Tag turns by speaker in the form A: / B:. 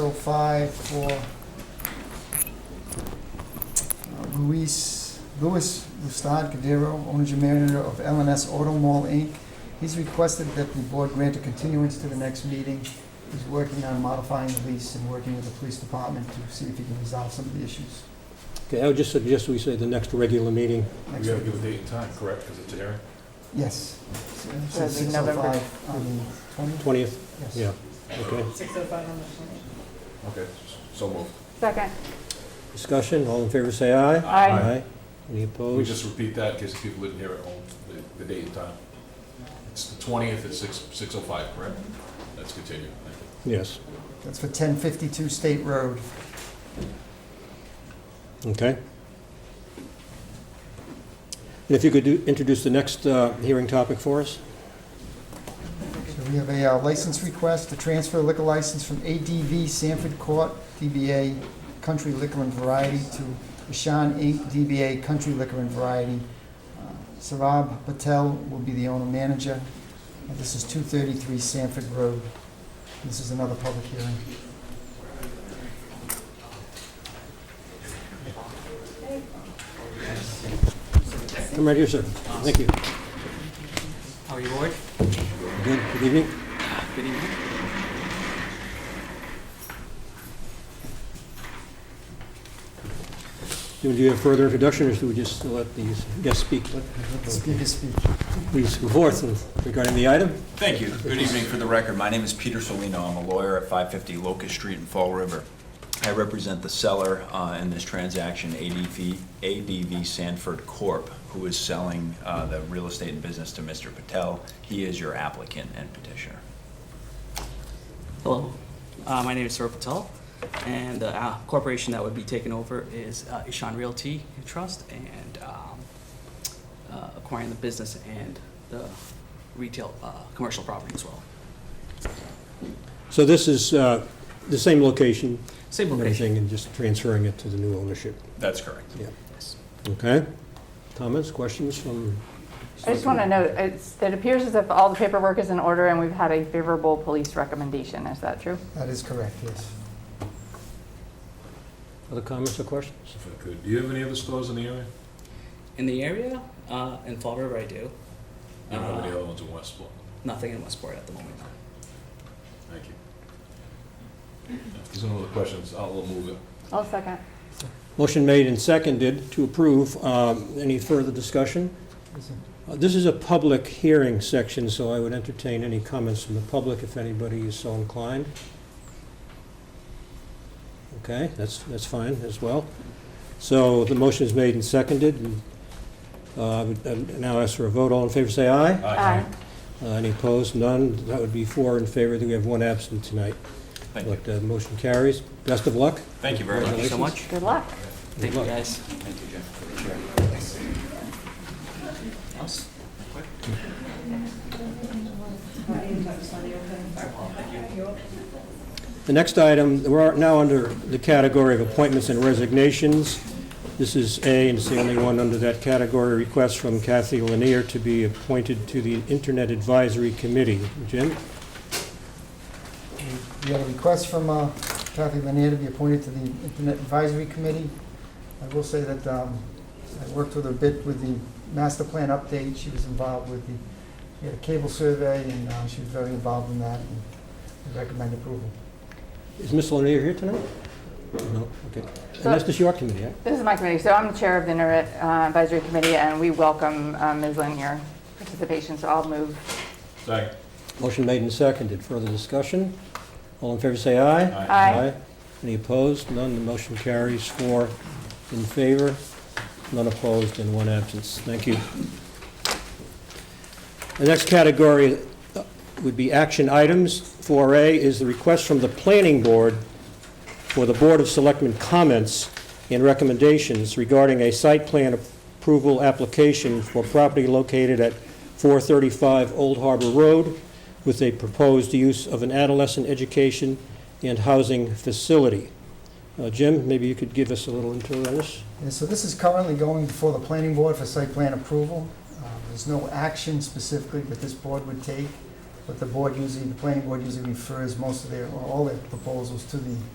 A: five for uh, Luis, Louis Lustad Cordero, owner and manager of LNS Auto Mall Inc. He's requested that the board grant a continuance to the next meeting. He's working on modifying the lease and working with the police department to see if he can resolve some of the issues.
B: Okay, I would just suggest we say the next regular meeting.
A: Next
C: We gotta
A: week.
C: give a date and time, correct, because it's a hearing?
A: Yes.
D: That'd be November.
A: 6:05 On the twentieth,
B: 20th,
A: yes.
B: yeah, okay.
E: Six oh five on the twenty.
C: Okay, so moved.
D: Second.
B: Discussion, all in favor, say aye.
D: Aye.
B: Any
C: Can we
B: opposed?
C: just repeat that in case people didn't hear at home, the- the date and time? It's the twentieth at six, six oh five, correct? Let's continue. Thank you.
B: Yes,
A: That's for ten fifty-two State Road.
B: okay. And if you could do- introduce the next uh, hearing topic for us?
A: So we have a uh, license request to transfer a liquor license from ADV Sanford Court, DBA Country Liquor and Variety, to Ishan Inc., DBA Country Liquor and Variety. Uh, Sarab Patel will be the owner-manager. And This is 233 Sanford Road. This is another public hearing.
B: Come right here, sir. Thank you.
F: How are you, Ward?
B: Good good evening.
F: Good evening.
B: Do you have further introduction, or should we just let the guests speak?
A: Speaker speak.
B: Please go forth regarding the item.
G: Thank you. Good evening. For the record, my name is Peter Solino. I'm a lawyer at 550 Locust Street in Fall River. I represent the seller uh, in this transaction, ADV ADV Sanford Corp., who is selling uh, the real estate and business to Mr. Patel. He is your applicant and petitioner.
F: Hello. Uh, My name is Saurabh Patel, and the uh, corporation that would be taking over is uh, Ishan Realty and Trust and um, uh, acquiring the business and the retail, uh, commercial property as well.
B: So this is uh, the same location?
F: Same
B: and
F: location.
B: everything, And just transferring it to the new ownership,
G: That's correct.
F: Yes.
B: okay? Comments, questions from?
D: I just want to note, it's, it appears as if all the paperwork is in order and we've had a favorable police recommendation. Is that true?
A: That is correct, yes.
B: Other comments or questions?
C: If I could, do you have any other stores in the area?
F: In the area, uh, in Fall River, I do.
C: You don't have any
F: Uh,
C: other ones in Westport?
F: Nothing in Westport at the moment.
C: Thank you. If there's no other questions, I'll move it.
D: I'll second.
B: Motion made and seconded to approve. Um, Any further discussion? Uh, This is a public hearing section, so I would entertain any comments from the public if anybody is so inclined. Okay, that's, that's fine as well. So the motion is made and seconded. and, uh, I would, uh, Now ask for a vote. All in favor, say aye.
D: Aye.
B: Uh, Any opposed? None. That would be four in favor. We have one absent tonight.
G: Thank you.
B: But uh, motion carries. Best of luck.
G: Thank you very much.
F: Thank you so much.
D: Good luck.
F: Thank you, guys.
G: Thank you, Jim.
F: Else?
B: The next item, we're now under the category of appointments and resignations. This is A, and it's the only one under that category, request from Kathy Lanier to be appointed to the Internet Advisory Committee. Jim?
A: We had a request from uh, Kathy Lanier to be appointed to the Internet Advisory Committee. I will say that um, I worked with her a bit with the master plan update. She was involved with the, we had a cable survey, and uh, she was very involved in that, and we recommend approval.
B: Is Ms. Lanier here tonight? No, okay. And that's just your committee, right?
D: This is my committee. So I'm the chair of the Internet uh, Advisory Committee and we welcome um, Ms. Lanier participation. So I'll move.
C: Second.
B: Motion made and seconded. Further discussion? All in favor, say aye.
D: Aye.
B: Any opposed? None. The motion carries four in favor, none opposed, and one absence. Thank you. The next category uh, would be action items. 4A is the request from the Planning Board for the Board of Selectmen comments and recommendations regarding a site plan approval application for property located at 435 Old Harbor Road with a proposed use of an adolescent education and housing facility. Uh, Jim, maybe you could give us a little intro on this?
A: And so this is currently going before the planning board for site plan approval. Uh, There's no action specifically that this board would take, but the board usually, the planning board usually refers most of their, or all their proposals to the